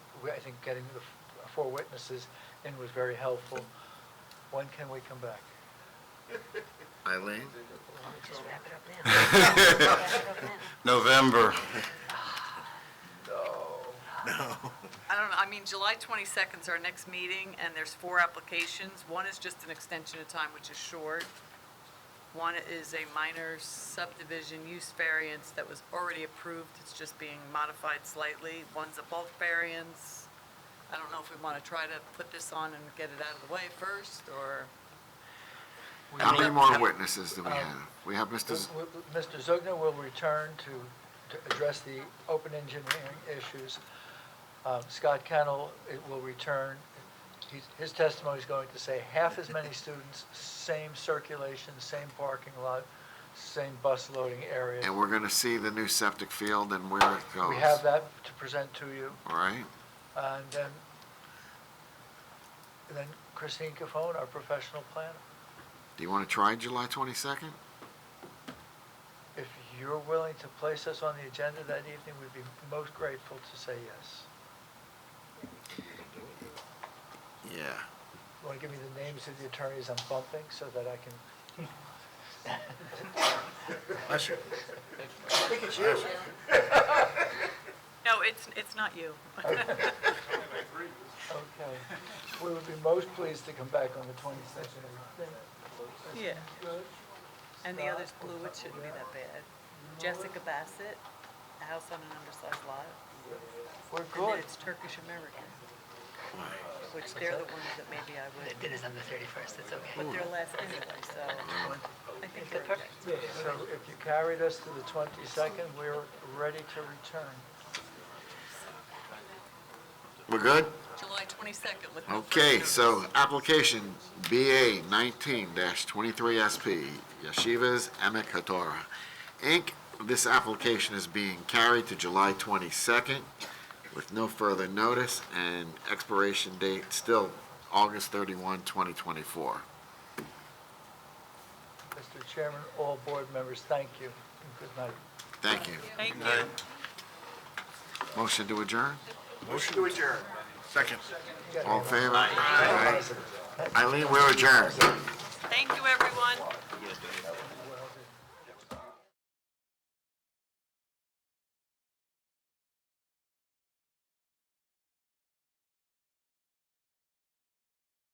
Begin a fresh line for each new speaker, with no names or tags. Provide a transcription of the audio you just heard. we- I think getting the f- four witnesses in was very helpful. When can we come back?
Eileen?
Just wrap it up now. Wrap it up now.
November.
I don't know, I mean, July 22nd is our next meeting, and there's four applications. One is just an extension of time, which is short. One is a minor subdivision use variance that was already approved, it's just being modified slightly. One's a bulk variance. I don't know if we want to try to put this on and get it out of the way first, or,
We
How many
will-
more witnesses
Uh,
do we have? We have Mr. Z-
w- w- Mr. Zugner will return to to address the open engineering issues. Um, Scott Kennel it will return. He's- His testimony is going to say half as many students, same circulation, same parking lot, same bus loading area.
and we're going to see the new septic field and where it goes.
We have that to present to you.
All right.
And then, and then Christine Cafone, our professional planner.
Do you want to try July 22nd?
If you're willing to place us on the agenda that evening, we'd be most grateful to say yes.
Yeah.
Want to give me the names of the attorneys I'm bumping so that I can?
no, it's, it's not you.
Okay. We would be most pleased to come back on the 22nd.
Yeah. And the other's blue, it shouldn't be that bad. Jessica Bassett, a house on an undersized lot.
We're
And then
good.
it's Turkish American, which they're the ones that maybe I would,
Dinner's on the 31st, it's okay.
but they're less anyway, so I think they're okay.
So if you carried us to the 22nd, we're ready to return.
We're good?
July 22nd with no further
Okay,
notice.
so application BA 19-23SP, Yeshivas Emek Hatorah, Inc. This application is being carried to July 22nd with no further notice and expiration date still August 31, 2024.
Mr. Chairman, all board members, thank you and good night.
Thank you.
Thank you.
Motion to adjourn?
Motion to adjourn. Second.
All in favor? Aye. Eileen, we're adjourned.
Thank you, everyone.
Well,